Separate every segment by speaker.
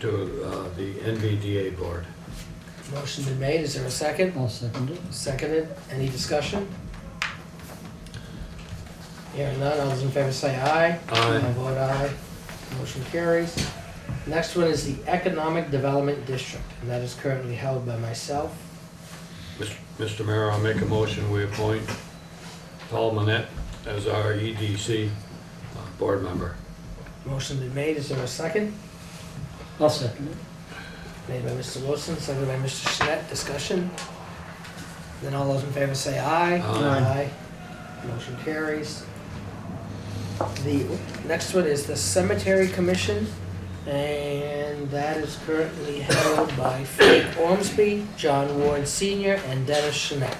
Speaker 1: to uh, the NVDA board.
Speaker 2: Motion been made, is there a second?
Speaker 3: I'll second it.
Speaker 2: Seconded, any discussion? Hearing none, all those in favor say aye.
Speaker 1: Aye.
Speaker 2: I vote aye, motion carries. Next one is the Economic Development District, and that is currently held by myself.
Speaker 1: Mis- Mr. Mayor, I'll make a motion, we appoint Paul Manette as our EDC uh, board member.
Speaker 2: Motion been made, is there a second?
Speaker 3: I'll second it.
Speaker 2: Made by Mr. Wilson, seconded by Mr. Schnett, discussion. Then all those in favor say aye.
Speaker 1: Aye.
Speaker 2: Aye. Motion carries. The next one is the Cemetery Commission, and that is currently held by Frank Ormsby, John Ward Senior, and Dennis Schnett.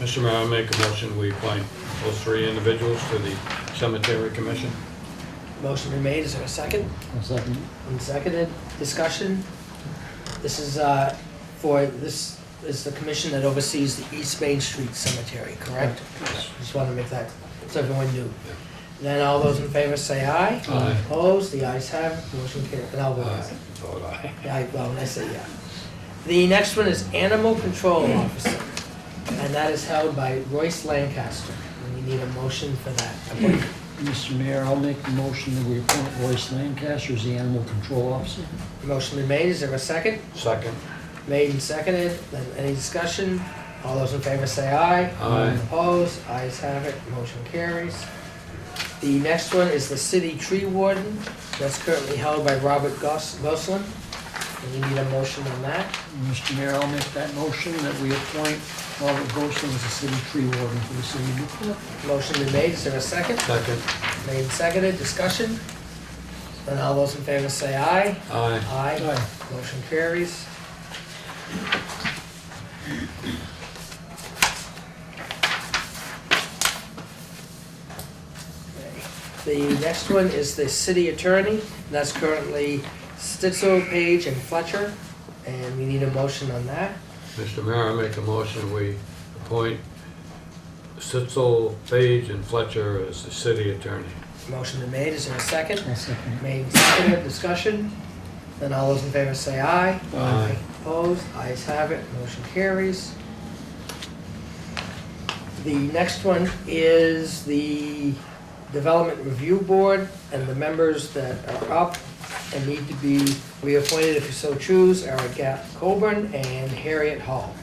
Speaker 1: Mr. Mayor, I'll make a motion, we appoint those three individuals to the cemetery commission.
Speaker 2: Motion been made, is there a second?
Speaker 3: I'll second it.
Speaker 2: And seconded, discussion. This is, uh, for, this is the commission that oversees the East Main Street Cemetery, correct? Just want to make that, so everyone knew. Then all those in favor say aye.
Speaker 1: Aye.
Speaker 2: Opposed, the ayes have, it. motion carried, and I'll vote
Speaker 1: Aye.
Speaker 2: aye.
Speaker 1: Uh, Vote aye.
Speaker 2: Yeah, I- well, I say yeah. The next one is Animal Control Officer, and that is held by Royce Lancaster. And we need a motion for that appointment.
Speaker 3: Mr. Mayor, I'll make the motion that we appoint Royce Lancaster as the animal control officer.
Speaker 2: Motion been made, is there a second?
Speaker 1: Second.
Speaker 2: Made and seconded, then any discussion? All those in favor say aye.
Speaker 1: Aye.
Speaker 2: Opposed, ayes have it, motion carries. The next one is the city tree warden, that's currently held by Robert Gos- Goslin. And we need a motion on that.
Speaker 3: Mr. Mayor, I'll make that motion that we appoint Robert Gosling as the city tree warden for the city of Newport.
Speaker 2: Motion been made, is there a second?
Speaker 1: Second.
Speaker 2: Made and seconded, discussion? Then all those in favor say aye.
Speaker 1: Aye.
Speaker 2: Aye. Motion carries. The next one is the city attorney, and that's currently Stitzel, Page, and Fletcher, and we need a motion on that.
Speaker 1: Mr. Mayor, I make a motion, we appoint Sitzel, Page, and Fletcher as the city attorney.
Speaker 2: Motion been made, is there a second?
Speaker 3: I'll second
Speaker 2: Made and seconded, discussion? Then all those in favor say aye.
Speaker 3: it.
Speaker 1: Aye.
Speaker 2: Opposed, ayes have it, motion carries. The next one is the Development Review Board, and the members that are up and need to be reappointed if you so choose are Gap Coburn and Harriet Hall.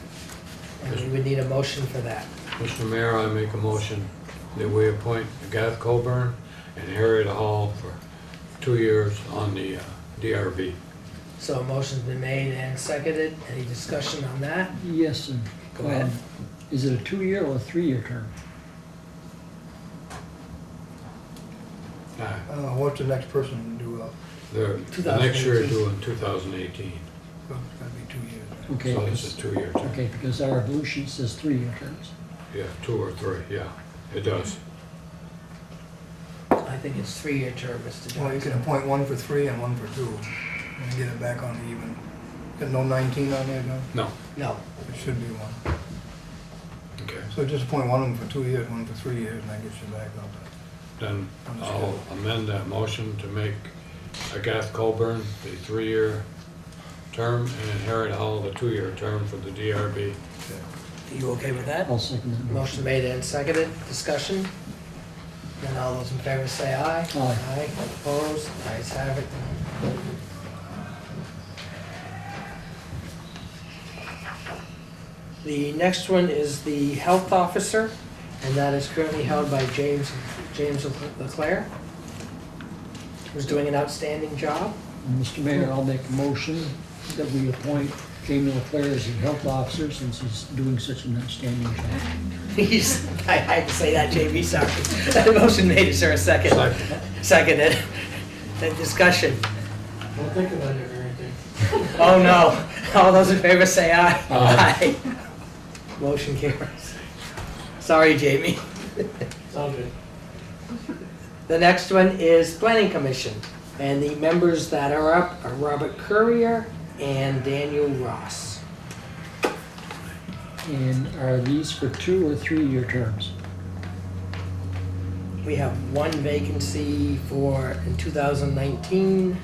Speaker 2: And we would need a motion for that.
Speaker 1: Mr. Mayor, I make a motion that we appoint Gath Coburn and Harriet Hall for two years on the uh, DRB.
Speaker 2: So a motion's been made and seconded, any discussion on that?
Speaker 3: Yes, sir.
Speaker 2: Go ahead.
Speaker 3: Is it a two-year or a three-year term?
Speaker 1: Uh,
Speaker 4: Uh, what's the next person to do, uh,
Speaker 1: The the next year
Speaker 2: 2018.
Speaker 1: due in 2018,
Speaker 4: well, it's gotta be two years.
Speaker 3: Okay,
Speaker 1: so it's
Speaker 3: because,
Speaker 1: a two-year term.
Speaker 3: okay, because our evolution says three-year terms.
Speaker 1: Yeah, two or three, yeah, it does.
Speaker 2: I think it's three-year term, Mr.
Speaker 4: Well, you
Speaker 2: Johnson.
Speaker 4: can appoint one for three and one for two, and get it back on the even. Got no nineteen on there, no?
Speaker 1: No,
Speaker 2: No,
Speaker 4: It should be one.
Speaker 1: okay,
Speaker 4: So just appoint one of them for two years, one for three years, and that gets you back up.
Speaker 1: then I'll amend that motion to make Gath Coburn the three-year term and Harriet Hall the two-year term for the DRB.
Speaker 2: are you okay with that?
Speaker 3: I'll second that motion.
Speaker 2: Motion made and seconded, discussion? Then all those in favor say aye.
Speaker 3: Aye.
Speaker 2: opposed, ayes have it. The next one is the health officer, and that is currently held by James, James Leclerc, who's doing an outstanding job.
Speaker 3: And Mr. Mayor, I'll make a motion that we appoint Jamie Leclerc as the health officer since he's doing such an outstanding job.
Speaker 2: He's, I I had to say that, JB, sorry. Motion made, is there a second?
Speaker 1: Second.
Speaker 2: Seconded. Then discussion.
Speaker 5: Don't think about it or anything.
Speaker 2: Oh, no. All those in favor say aye. Aye. Motion carries. Sorry, Jamie.
Speaker 5: It's all good.
Speaker 2: The next one is Planning Commission, and the members that are up are Robert Courier and Daniel Ross.
Speaker 3: And are these for two or three-year terms?
Speaker 2: We have one vacancy for in 2019,